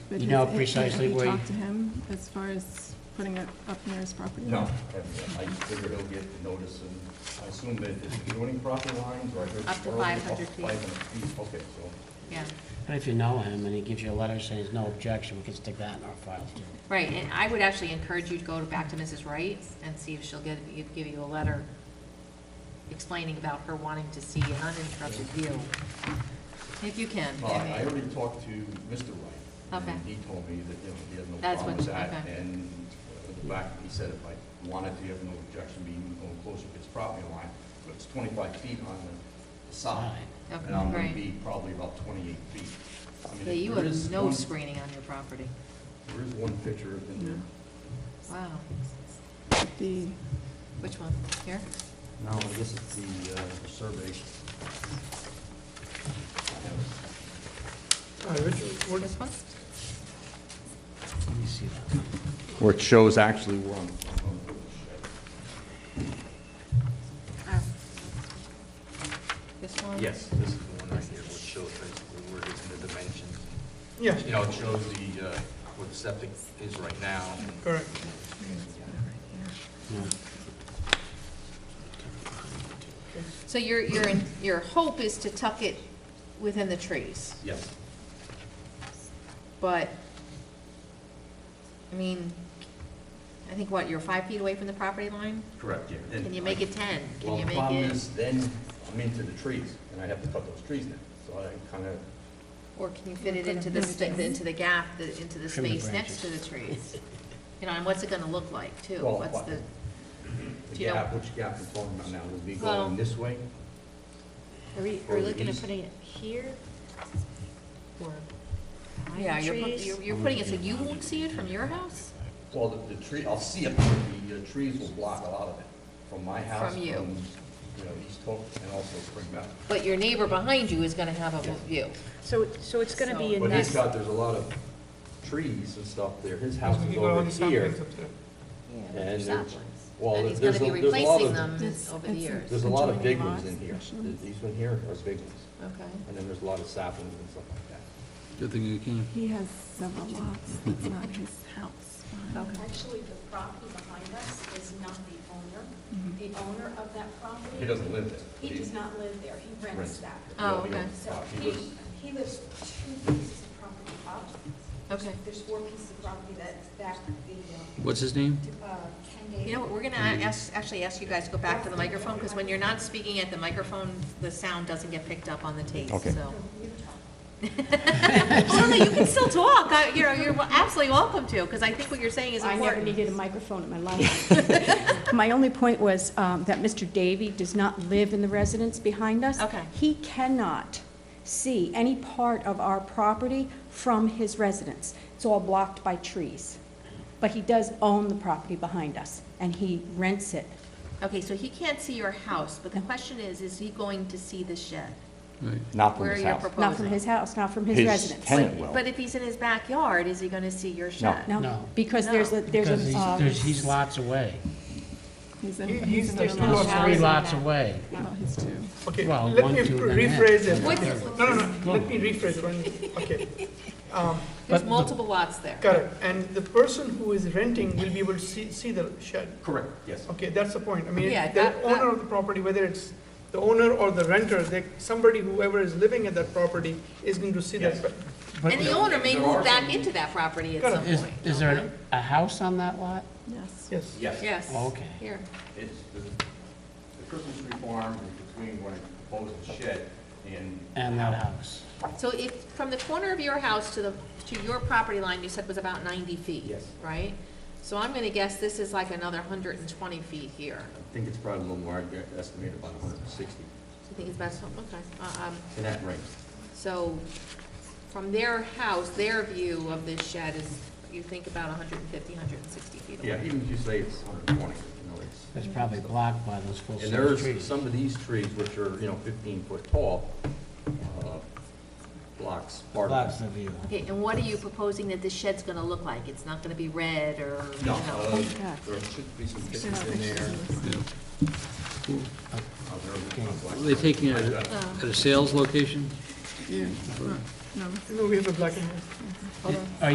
but You know has- precisely Have where you you- talked to him as far as putting it up near his property? No, I figure he'll get the notice, and I assume that it's adjoining property lines, or I heard... Up to earlier, 500 feet. 500 feet, okay, so, yeah. But if you know him and he gives you a letter saying there's no objection, we can stick that in our file too. Right, and I would actually encourage you to go to- back to Mrs. Wright and see if she'll get, if- give you a letter explaining about her wanting to see an uninterrupted view. If you can. uh, I already talked to Mr. Wright. Okay. And he told me that, you know, he had no That's problem with what- that, okay. and uh, the fact, that he said if I wanted to, have no objection being no closer to his property line, but it's 25 feet on the side, Side. and I'm going Okay. to be probably about 28 feet. I mean, Yeah, you there have is no one- screening on your property. There is one picture in there. Wow. The, Which one? Here? No, this is the uh, the survey. Hi, Richard, what, This one? Let me see that. Where it shows actually where I'm. Oh. This one? Yes, this is the one right here, which shows basically where it is in the dimensions. yeah, You know, it shows the, uh, where the septic is right now. correct. So your, your, your hope is to tuck it within the trees, Yes. but, I mean, I think what, you're five feet away from the property line? Correct, yeah. And Can you make it ten? Can Well, you the make problem it, is, then I'm into the trees, and I have to cut those trees now, so I kind of, or can you fit it into the, sta- into the gap, the- into the Trim the space next to the trees? You know, and what's it gonna look like too? Well, What's what- the, the Do you know- gap, which gap I'm talking about now, would be Well- going this way. Are we, are Or we the looking at east. putting it here? Or yeah, behind the you're, put- trees? you're, you're putting it so you won't see it from your house? Well, the, the tree, I'll see it, but the uh, trees will block a lot of it, from my house. From you. You know, East Hope and also Spring Mountain. But your neighbor behind you is gonna have a view. So, so it's gonna be in But he's this, got, there's a lot of trees and stuff there, his house You is go on over the here. saplings up there. Yeah, but And there's saplings. there's- well, And he's there's gonna be a- there's a lot replacing of- them It's- over the it's a- years. There's a lot of big Adjoining ones lots, in here, actually. these one here are big ones, Okay. and then there's a lot of saplings and stuff like that. Good thing you came. he has several lots, it's not his house. behind him. Actually, the property behind us is not the owner. Mm-hmm. Mhm. The owner of that property. He doesn't live there. He does not live there, he Rents. rents that. Oh, Nobody okay. owns the So property. He he, lives- he lives two pieces of property up. Okay. There's four pieces of property that's back the, What's his name? uh, uh, Ken Davis. You know what, we're gonna ask, actually ask you guys to go back to the microphone, because when you're not speaking at the microphone, the sound doesn't get picked up on the tape, Okay. so. Oh, no, you can still talk, I- you know, you're absolutely welcome to, because I think what you're saying is I important. never needed a microphone in my life. My only point was um, that Mr. Davy does not live in the residence behind us. Okay. He cannot see any part of our property from his residence. It's all blocked by trees. But he does own the property behind us, and he rents it. Okay, so he can't see your house, but the question is, is he going to see the shed? Right. Not Where you're proposing? Not from his house, not from his His residence. tenant- will. But if he's in his backyard, is he gonna see your shed? No. No, because there's a, Because there's a, he's, uh, there's, he's lots away. He's in, He- he's he's in the another He's There's lot. two lots. three lots away. Well, he's two. Okay, Well, let one, me two, then rephrase that. it. What's- No, no, no, let me rephrase it, one- okay. Um, But There's the- multiple lots there. Correct, and the person who is renting will be able to see, see the shed. Correct, yes. Okay, that's the point, I mean, Yeah, the that- owner of the property, whether it's the owner or the renter, they, somebody, whoever is living at that property is going to see that. Yes. but- But And the owner may There are move back some- into that property at some is, point. is there an- a house on that lot? Yes. Yes. Yes. Yes. Okay. Here. It's, the the Christmas tree farm is between what I proposed and shed and. And that house? So if, from the corner of your house to the, to your property line, you said was about ninety feet? Yes. Right? So I'm gonna guess this is like another hundred and twenty feet here. I think it's probably a little more, I estimated about hundred and sixty So you think it's about, some- okay, Uh, um, in that range. so from their house, their view of this shed is, you think about hundred and fifty, hundred and sixty feet away? Yeah, even if you say it's hundred and twenty, you know, it's. It's probably blocked by those full And size there's trees. some of these trees which are, you know, fifteen foot tall, uh, blocks part of Blocks it. the view. Okay, and what are you proposing that this shed's gonna look like? It's not gonna be red or, you No, know? uh, there should be some They're not pictures in pictures there. of this. Oh, there are Are blocks. they taking it at a- at a sales location? Yeah, no, no. No, we have a black and white. Hold on.